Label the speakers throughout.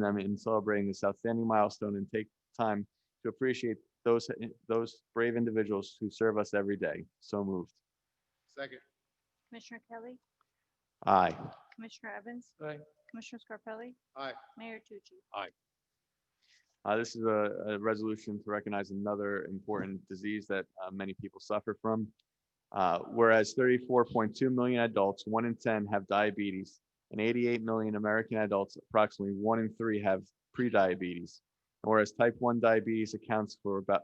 Speaker 1: them in celebrating this outstanding milestone and take time to appreciate those, those brave individuals who serve us every day. So moved.
Speaker 2: Second.
Speaker 3: Commissioner Kelly,
Speaker 1: Aye.
Speaker 3: Commissioner Evans,
Speaker 2: Aye.
Speaker 3: Commissioner Scarpelli,
Speaker 2: Aye.
Speaker 3: Mayor Tucci.
Speaker 1: Uh, this is a, a resolution to recognize another important disease that uh, many people suffer from. Uh, whereas thirty-four point two million adults, one in ten have diabetes, and eighty-eight million American adults, approximately one in three have prediabetes. Whereas type one diabetes accounts for about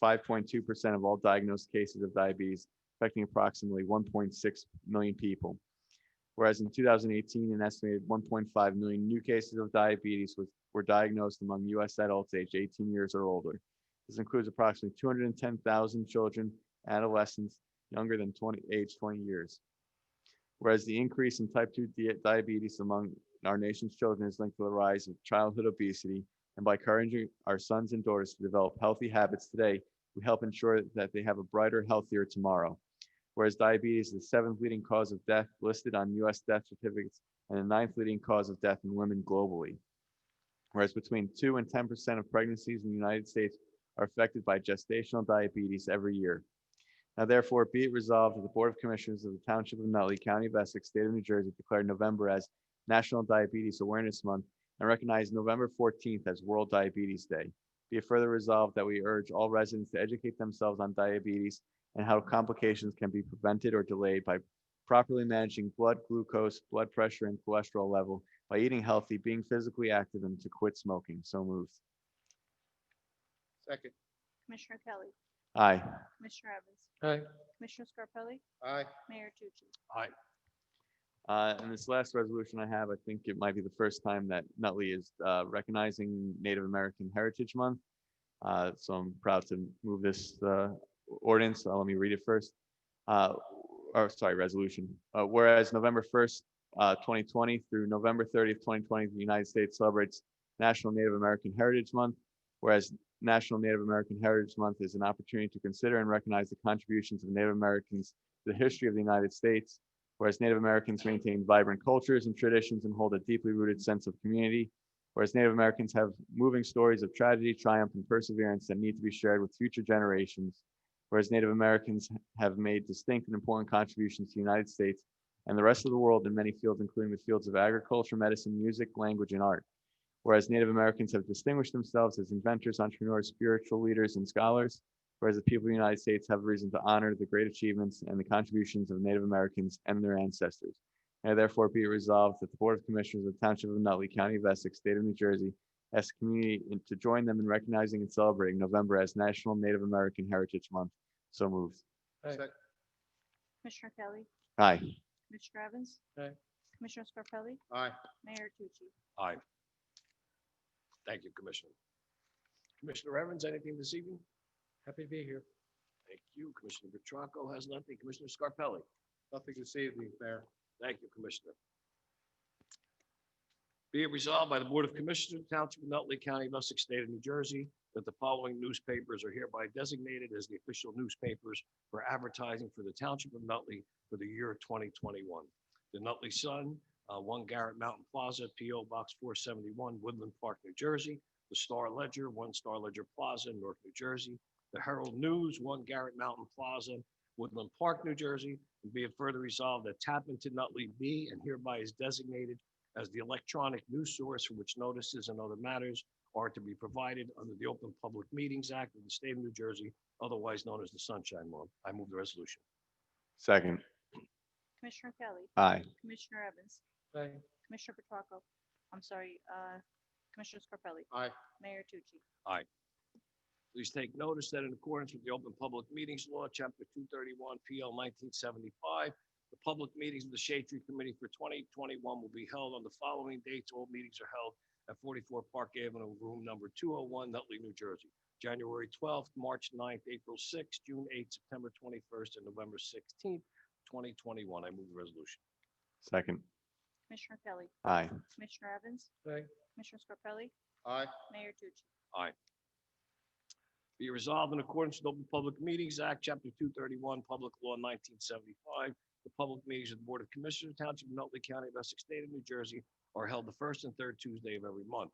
Speaker 1: five point two percent of all diagnosed cases of diabetes, affecting approximately one point six million people. Whereas in two thousand eighteen, an estimated one point five million new cases of diabetes was were diagnosed among U.S. adults aged 18 years or older. This includes approximately 210,000 children, adolescents younger than 20, age 20 years. Whereas the increase in type 2 di- diabetes among our nation's children is linked to the rise of childhood obesity, and by encouraging our sons and daughters to develop healthy habits today, we help ensure that they have a brighter, healthier tomorrow. Whereas diabetes is the seventh leading cause of death listed on U.S. death certificates and the ninth leading cause of death in women globally whereas between 2 and 10% of pregnancies in the United States are affected by gestational diabetes every year. Now therefore be it resolved that the Board of Commissioners of the Township of Nutley, County of Essex, State of New Jersey declare November as National Diabetes Awareness Month and recognize November 14th as World Diabetes Day. Be it further resolved that we urge all residents to educate themselves on diabetes and how complications can be prevented or delayed by properly managing blood glucose, blood pressure, and cholesterol level by eating healthy, being physically active, and to quit smoking. So moved.
Speaker 2: Second.
Speaker 3: Commissioner Kelly,
Speaker 1: Aye.
Speaker 3: Commissioner Evans,
Speaker 2: Aye.
Speaker 3: Commissioner Scarpelli,
Speaker 2: Aye.
Speaker 3: Mayor Tucci.
Speaker 1: Uh, And this last resolution I have, I think it might be the first time that Nutley is uh, recognizing Native American Heritage Month. Uh, So I'm proud to move this uh, ordinance. Uh, Let me read it first. Uh, Or, sorry, resolution. Uh, Whereas November 1st, uh, 2020 through November 30th, 2020, the United States celebrates National Native American Heritage Month. Whereas National Native American Heritage Month is an opportunity to consider and recognize the contributions of Native Americans to the history of the United States whereas Native Americans maintain vibrant cultures and traditions and hold a deeply rooted sense of community, whereas Native Americans have moving stories of tragedy, triumph, and perseverance that need to be shared with future generations, whereas Native Americans have made distinct and important contributions to the United States and the rest of the world in many fields, including the fields of agriculture, medicine, music, language, and art. Whereas Native Americans have distinguished themselves as inventors, entrepreneurs, spiritual leaders, and scholars, whereas the people of the United States have reason to honor the great achievements and the contributions of Native Americans and their ancestors. Now therefore be it resolved that the Board of Commissioners of the Township of Nutley, County of Essex, State of New Jersey, asks the community in- to join them in recognizing and celebrating November as National Native American Heritage Month. So moved.
Speaker 2: Aye.
Speaker 3: Commissioner Kelly,
Speaker 1: Aye.
Speaker 3: Commissioner Evans.
Speaker 2: Aye.
Speaker 3: Commissioner Scarpelli,
Speaker 2: Aye.
Speaker 3: Mayor Tucci.
Speaker 4: Aye. Thank you, Commissioner. Commissioner Evans, anything this evening?
Speaker 2: Happy to be here.
Speaker 4: Thank you. Commissioner Petracco has nothing. Commissioner Scarpelli?
Speaker 2: Nothing this evening, Mayor.
Speaker 4: Thank you, Commissioner. Be it resolved by the Board of Commissioners of the Township of Nutley County, of Essex State of New Jersey, that the following newspapers are hereby designated as the official newspapers for advertising for the Township of Nutley for the year 2021. The Nutley Sun, uh, 1 Garrett Mountain Plaza, P.O. Box 471, Woodland Park, New Jersey. The Star Ledger, 1 Star Ledger Plaza, North New Jersey. The Herald News, 1 Garrett Mountain Plaza, Woodland Park, New Jersey, and be it further resolved that Tappan to Nutley be and hereby is designated as the electronic news source for which notices and other matters are to be provided under the Open Public Meetings Act of the State of New Jersey, otherwise known as the Sunshine Law. I move the resolution.
Speaker 1: Second.
Speaker 3: Commissioner Kelly,
Speaker 1: Aye.
Speaker 3: Commissioner Evans,
Speaker 2: Aye.
Speaker 3: Commissioner Petracco, I'm sorry, uh, Commissioner Scarpelli.
Speaker 2: Aye.
Speaker 3: Mayor Tucci.
Speaker 4: Please take notice that in accordance with the Open Public Meetings Law, Chapter 231, PL 1975, the public meetings of the Shade Tree Committee for 2021 will be held on the following dates. All meetings are held at 44 Park Avenue, room number 201, Nutley, New Jersey. January 12th, March 9th, April 6th, June 8th, September 21st, and November 16th, 2021. I move the resolution.
Speaker 1: Second.
Speaker 3: Commissioner Kelly,
Speaker 1: Aye.
Speaker 3: Commissioner Evans,
Speaker 2: Aye.
Speaker 3: Commissioner Scarpelli,
Speaker 2: Aye.
Speaker 3: Mayor Tucci.
Speaker 4: Be resolved in accordance with Open Public Meetings Act, Chapter 231, Public Law 1975. The public meetings of the Board of Commissioners, Township of Nutley County, of Essex State of New Jersey are held the first and third Tuesday of every month.